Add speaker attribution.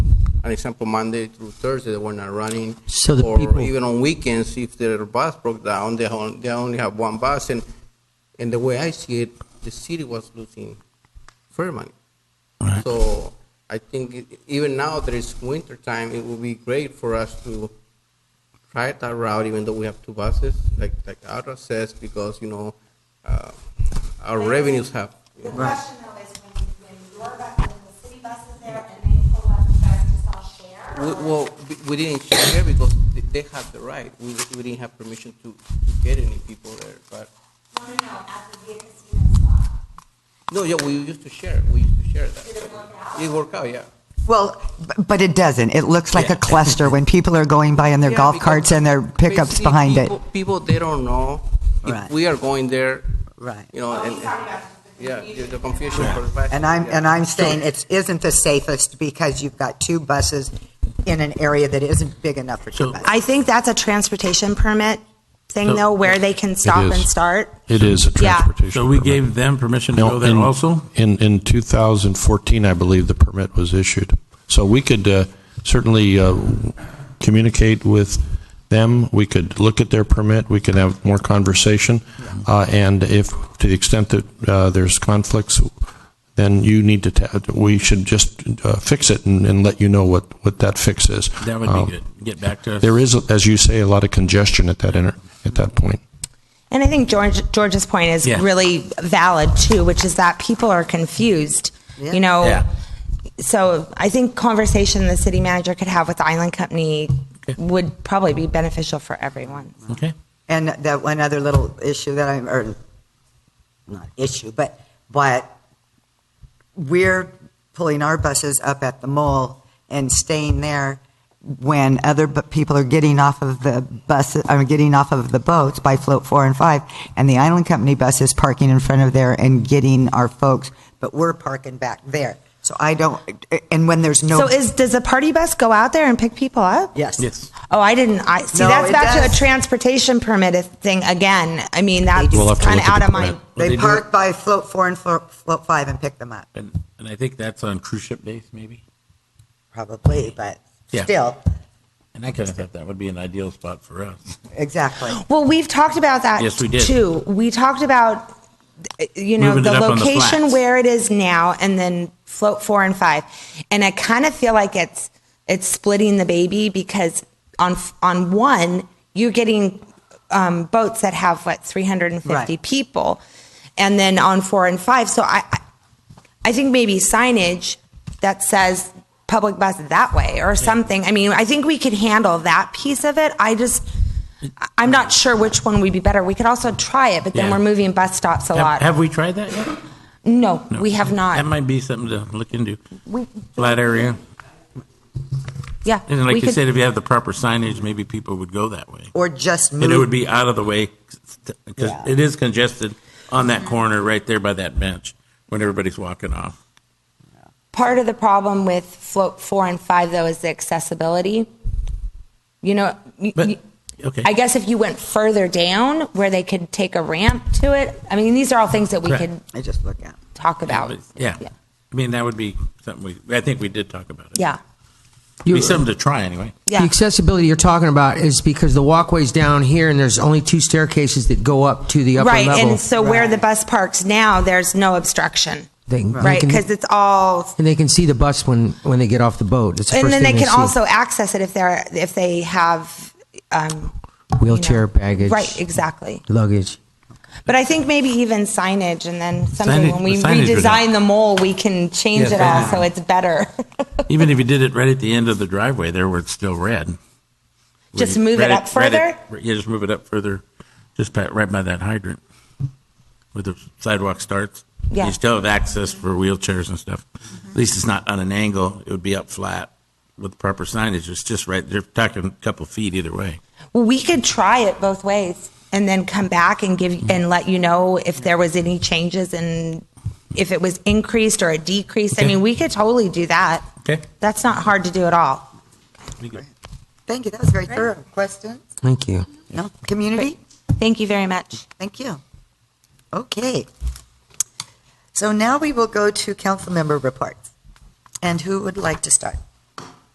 Speaker 1: an example, Monday through Thursday, they were not running.
Speaker 2: So the
Speaker 1: or
Speaker 2: people-
Speaker 1: even on weekends, if their bus broke down, they, on, they only have one bus. And, and the way I see it, the city was losing fair money.
Speaker 2: Right.
Speaker 1: So I think it, even now that it's winter time, it would be great for us to try that route, even though we have two buses, like like Ara says, because you know uh, our revenues have.
Speaker 3: The question though is when, when your, bu- when the city bus is there and they pull up, you guys just all share?
Speaker 1: We,
Speaker 3: or-
Speaker 1: well, we- we didn't share because they- they had the right. We, we didn't have permission to, to get any people there. But
Speaker 3: No, no, no, at the Via Casino spot.
Speaker 1: no, yeah, we used to share. We used to share
Speaker 3: Did
Speaker 1: that.
Speaker 3: it work out?
Speaker 1: It worked out, yeah.
Speaker 4: Well, b- but it doesn't. It looks like
Speaker 1: Yeah.
Speaker 4: a cluster when people are going by in their
Speaker 1: Yeah,
Speaker 4: golf
Speaker 1: because
Speaker 4: carts and their pickups
Speaker 1: basically
Speaker 4: behind it.
Speaker 1: people, People they don't know if
Speaker 4: Right.
Speaker 1: we are going there.
Speaker 4: Right.
Speaker 1: You know, and, and yeah, the, the confusion for the
Speaker 4: And I'm,
Speaker 1: passenger,
Speaker 4: and
Speaker 1: yeah.
Speaker 4: I'm saying it isn't the safest because you've got two buses in an area that isn't big enough for two
Speaker 2: So-
Speaker 4: buses.
Speaker 3: I think that's a transportation permit thing
Speaker 2: So-
Speaker 3: though, where they can stop
Speaker 5: is.
Speaker 3: and start.
Speaker 5: It is a
Speaker 3: Yeah.
Speaker 5: transportation.
Speaker 2: So we
Speaker 5: permit.
Speaker 2: gave them permission to
Speaker 5: No,
Speaker 2: go there
Speaker 5: in-
Speaker 2: also?
Speaker 5: In, in 2014, I believe the permit was issued. So we could uh, certainly uh, communicate with them, we could look at their permit, we could have more conversation, Uh, and if, to the extent that uh, there's conflicts, then you need to, ta- we should just uh, fix it and and let you know what, what that fix is.
Speaker 2: That would
Speaker 5: Uh,
Speaker 2: be good. Get back to us.
Speaker 5: There is, as you say, a lot of congestion at that, inter- at that point.
Speaker 3: And I think George, George's point is
Speaker 2: Yeah.
Speaker 3: really valid too, which is that people are confused, you know?
Speaker 2: Yeah.
Speaker 3: So I think conversation the city manager could have with the Island Company would probably be beneficial for everyone.
Speaker 2: Okay.
Speaker 6: And that one other little issue that I'm, or not issue, but, but we're pulling our buses up at the mall and staying there when other bu- people are getting off of the bus, are getting off of the boats by float four and five, and the island company bus is parking in front of there and getting our folks, but we're parking back there. So I don't, and when there's no.
Speaker 3: So is, does the party bus go out there and pick people up?
Speaker 6: Yes.
Speaker 2: Yes.
Speaker 3: Oh, I didn't, I, see,
Speaker 6: No,
Speaker 3: that's
Speaker 6: it
Speaker 3: back to a
Speaker 6: does.
Speaker 3: transportation permit thing again. I mean, that's
Speaker 5: We'll have to
Speaker 3: kind of
Speaker 5: look at
Speaker 3: out
Speaker 5: the
Speaker 3: of my,
Speaker 5: permit.
Speaker 2: They
Speaker 6: They
Speaker 2: do
Speaker 6: park by float four and flo- float five and pick them up,
Speaker 2: And, and I think that's on cruise ship days, maybe?
Speaker 6: probably, but
Speaker 2: Yeah.
Speaker 6: still,
Speaker 2: And I kind of thought that would be an ideal spot for us.
Speaker 6: exactly.
Speaker 3: well, we've talked about that.
Speaker 2: Yes, we did.
Speaker 3: Too. We talked about, uh, you know,
Speaker 2: Moving
Speaker 3: the
Speaker 2: it up on the
Speaker 3: location
Speaker 2: flats.
Speaker 3: where it is now and then float four and five. And I kind of feel like it's, it's splitting the baby because on, f- on one, you're getting um, boats that have what, 350
Speaker 6: Right.
Speaker 3: people. And then on four and five. So I, I- I think maybe signage that says public bus that way or something. I mean, I think we could handle that piece of it. I just, I- I'm not sure which one would be better. We could also try it, but then
Speaker 2: Yeah.
Speaker 3: we're moving bus stops a
Speaker 2: Have,
Speaker 3: lot.
Speaker 2: have we tried that yet?
Speaker 3: no, we have
Speaker 2: That
Speaker 3: not.
Speaker 2: might be something to look into.
Speaker 3: We,
Speaker 2: Flat area.
Speaker 3: yeah.
Speaker 2: And
Speaker 3: we
Speaker 2: like you
Speaker 3: could-
Speaker 2: said, if you have the proper signage, maybe people would go that way.
Speaker 6: Or just
Speaker 3: Mm.
Speaker 2: And it would
Speaker 6: move,
Speaker 2: be out of the way because
Speaker 6: Yeah.
Speaker 2: it is congested on that corner right there by that bench when everybody's walking off.
Speaker 3: part of the problem with float four and five though is the accessibility. You know, y-
Speaker 2: But-
Speaker 3: y-
Speaker 2: okay.
Speaker 3: I guess if you went further down where they could take a ramp to it, I mean, these are all things that we
Speaker 2: Correct.
Speaker 3: could
Speaker 6: I just look at.
Speaker 3: talk about.
Speaker 2: Yeah.
Speaker 3: Yeah.
Speaker 2: I mean, that would be something we, I think we did talk about it.
Speaker 3: Yeah.
Speaker 2: It'd be
Speaker 7: You-
Speaker 2: something to try anyway.
Speaker 3: Yeah.
Speaker 7: The accessibility you're talking about is because the walkway's down here and there's only two staircases that go up to the upper
Speaker 3: right
Speaker 7: level.
Speaker 3: and so where the bus parks now there's no obstruction
Speaker 7: They- they
Speaker 3: right
Speaker 7: can-
Speaker 3: because it's all
Speaker 7: and they can see the bus when, when they get off the boat. It's the
Speaker 3: and
Speaker 7: first
Speaker 3: then they
Speaker 7: thing
Speaker 3: can
Speaker 7: see.
Speaker 3: also access it if they're if they have um, you know.
Speaker 7: wheelchair baggage,
Speaker 3: right exactly
Speaker 7: luggage.
Speaker 3: but i think maybe even signage and then something
Speaker 2: Signage-
Speaker 3: when we
Speaker 2: the signage would
Speaker 3: redesign the mole we can change
Speaker 2: Yeah,
Speaker 3: it all
Speaker 2: signage.
Speaker 3: so it's better
Speaker 2: Even if you did it right at the end of the driveway there where it's still red.
Speaker 3: Just
Speaker 2: Where you-
Speaker 3: move it
Speaker 2: right
Speaker 3: up
Speaker 2: at- right at- Yeah, just move it up further, just by- right by that hydrant where the sidewalk starts.
Speaker 3: Yeah.
Speaker 2: You still have access for wheelchairs and stuff. At least it's not on an angle. It would be up flat with proper signage. It's just right, they're talking a couple feet either way.
Speaker 3: well we could try it both ways and then come back and give and let you know if there was any changes and if it was increased or a decrease i
Speaker 2: Okay.
Speaker 3: mean we could totally do that
Speaker 2: Okay.
Speaker 3: that's not hard to do at all
Speaker 6: Thank you, that was very thorough. Questions?
Speaker 7: Thank you.
Speaker 6: No? Community?
Speaker 3: Thank you very much.
Speaker 6: Thank you. Okay. So now we will go to council member reports. And who would like to start?